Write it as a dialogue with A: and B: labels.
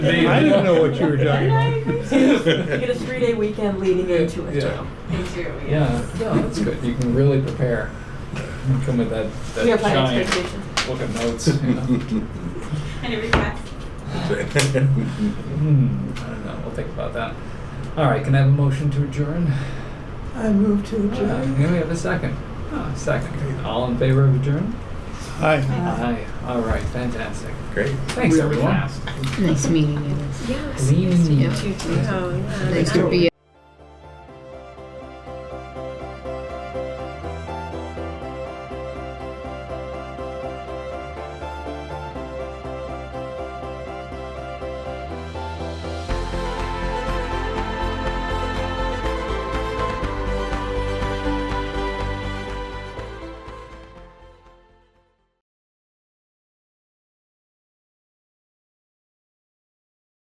A: I didn't know what you were talking about.
B: You get a three-day weekend leading into it
C: Yeah.
B: too.
C: Yeah, no, that's good. You can really prepare. You Come with that,
B: You
C: that
B: have high
C: giant
B: expectations.
C: book of notes. you know.
D: And it requests.
C: Hmm, I don't know. We'll think about that. All right, can I have a motion to adjourn?
E: I move to
C: Uh,
E: adjourn.
C: Can we have a second? Ah, second. All in favor of adjourn?
A: Hi.
C: Aye. All right, fantastic.
F: Great.
C: Thanks,
A: Really
C: everyone.
A: fast.
G: Nice meeting you.
B: Oh,
C: Lean.
G: Nice to be